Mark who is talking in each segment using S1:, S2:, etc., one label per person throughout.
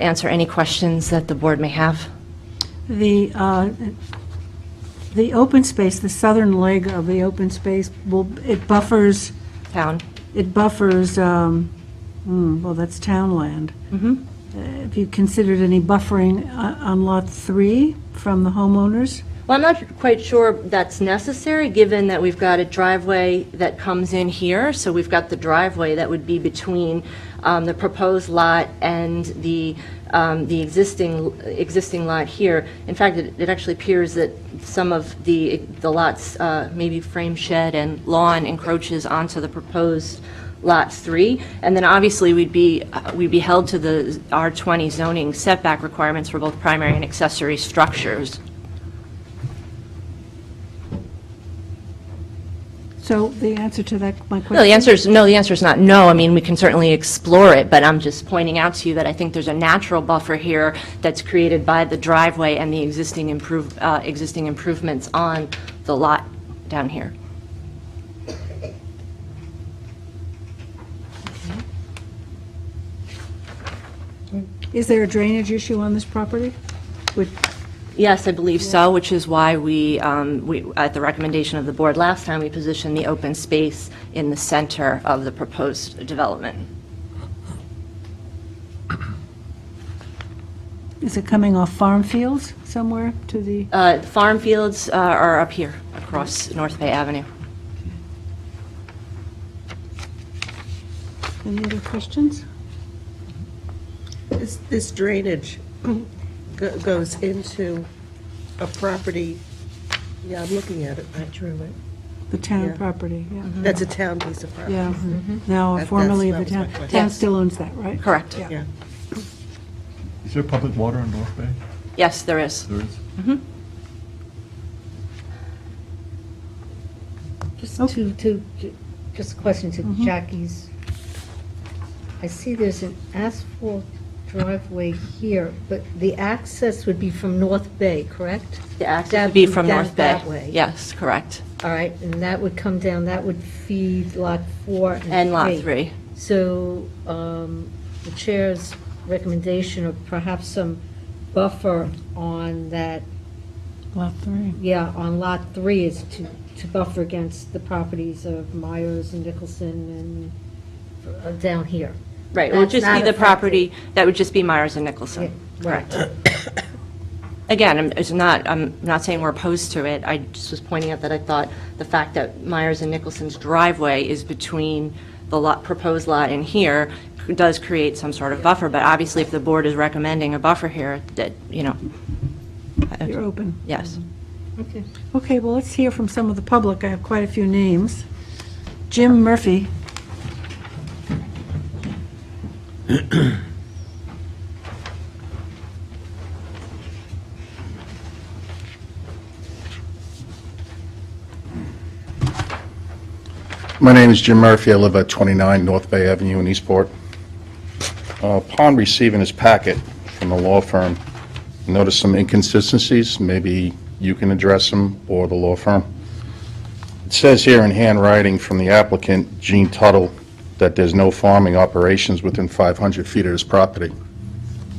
S1: answer any questions that the board may have.
S2: The, uh, the open space, the southern leg of the open space, will, it buffers,
S1: Town?
S2: it buffers, um, hmm, well, that's town land.
S1: Mhm.
S2: Uh, Have you considered any buffering uh, on Lot 3 from the homeowners?
S1: Well, I'm not quite sure that's necessary, given that we've got a driveway that comes in here, so we've got the driveway that would be between um, the proposed lot and the, um, the existing, existing lot here. In fact, it it actually appears that some of the, the lots, uh, maybe frame shed and lawn encroaches onto the proposed Lot 3, and then obviously, we'd be, uh, we'd be held to the R20 zoning setback requirements for both primary and accessory structures.
S2: So the answer to that, my question?
S1: No, the answer is, no, the answer is not no. I mean, we can certainly explore it, but I'm just pointing out to you that I think there's a natural buffer here that's created by the driveway and the existing improve, uh, existing improvements on the lot down here.
S2: Is there a drainage issue on this property? Would-
S1: Yes, I believe so, which is why we, um, we, at the recommendation of the board last time, we positioned the open space in the center of the proposed development.
S2: Is it coming off farm fields somewhere to the,
S1: Uh, Farm fields uh, are up here, across North Bay Avenue.
S2: any other questions?
S3: This- This drainage go- goes into a property, yeah, I'm looking at it, I drew it.
S2: The town
S3: Yeah.
S2: property, yeah.
S3: That's a town piece of property.
S2: Yeah, now
S3: Mm-hmm. That-
S2: formerly of the
S3: that's-
S2: town.
S3: that was my question.
S2: Town
S1: Yes.
S2: still owns that, right?
S1: Correct.
S2: Yeah.
S3: Yeah.
S4: Is there public water in North Bay?
S1: Yes, there is.
S4: There is.
S5: Just to, to, just a question to
S1: Mm-hmm.
S5: Jackie's. I see there's an asphalt driveway here, but the access would be from North Bay, correct?
S1: The access
S5: That
S1: would be
S5: would
S1: from
S5: down
S1: North Bay.
S5: that way.
S1: Yes, correct.
S5: All right, and that would come down, that would feed Lot 4 and 3.
S1: And Lot 3.
S5: So um, the chair's recommendation of perhaps some buffer on that,
S2: Lot three.
S5: yeah, on Lot 3 is to, to buffer against the properties of Myers and Nicholson and uh, down here.
S1: Right, it would
S5: That's
S1: just
S5: not
S1: be the
S5: affected.
S1: property, that would just be Myers and
S5: Yeah,
S1: Nicholson.
S5: Right.
S1: Again, I'm- it's not, I'm not saying we're opposed to it, I just was pointing out that I thought the fact that Myers and Nicholson's driveway is between the lot, proposed lot and here does create some sort of buffer, but obviously if the board is recommending a buffer here, that, you know,
S2: You're open.
S1: yes.
S5: Okay.
S2: Okay, well, let's hear from some of the public. I have quite a few names. Jim Murphy.
S6: My name is Jim Murphy. I live at 29 North Bay Avenue in Eastport. Uh, Upon receiving his packet from the law firm, I noticed some inconsistencies. Maybe you can address them or the law firm. It says here in handwriting from the applicant, Gene Tuttle, that there's no farming operations within 500 feet of his property.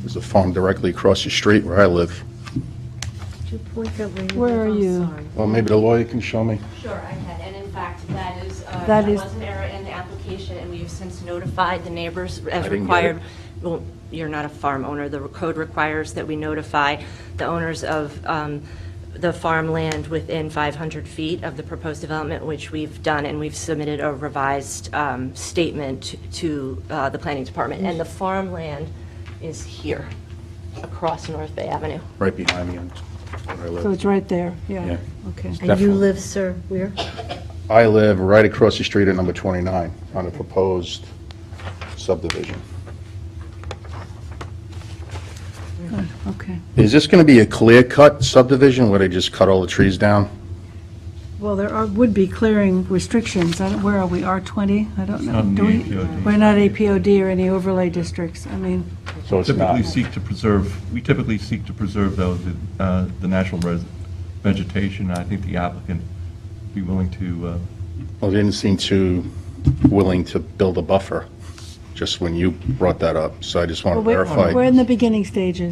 S6: There's a farm directly across the street where I live.
S5: Could you point out where
S2: Where are
S5: you live? I'm
S2: you?
S5: sorry.
S6: Well, maybe the lawyer can show me.
S1: Sure, I can, and in fact, that is, uh,
S2: That
S1: that
S2: is-
S1: was an error in the application, and we have since notified the neighbors as
S6: I didn't get
S1: required.
S6: it.
S1: Well, you're not a farm owner, the code requires that we notify the owners of um, the farmland within 500 feet of the proposed development, which we've done, and we've submitted a revised um, statement to uh, the planning department, and the farmland is here, across North Bay Avenue.
S6: Right behind me on where I live.
S2: So it's right there, yeah.
S6: Yeah.
S2: Okay.
S5: And you
S6: Definitely.
S5: live, sir, where?
S6: I live right across the street at number 29 on a proposed subdivision.
S2: Okay.
S6: Is this going to be a clear-cut subdivision where they just cut all the trees down?
S2: Well, there are, would be clearing restrictions. I don't, where are we, R20? I don't know.
S4: not
S2: Do we-
S4: APOD.
S2: We're not APOD or any overlay districts. I mean,
S6: So it's not,
S4: Typically seek to preserve, we typically seek to preserve, though, the, uh, the natural res- vegetation. I think the applicant be willing to, uh,
S6: well, they didn't seem too willing to build a buffer. just when you brought that up, so I just want to
S2: Well, we're-
S6: verify.
S2: We're in the beginning stages.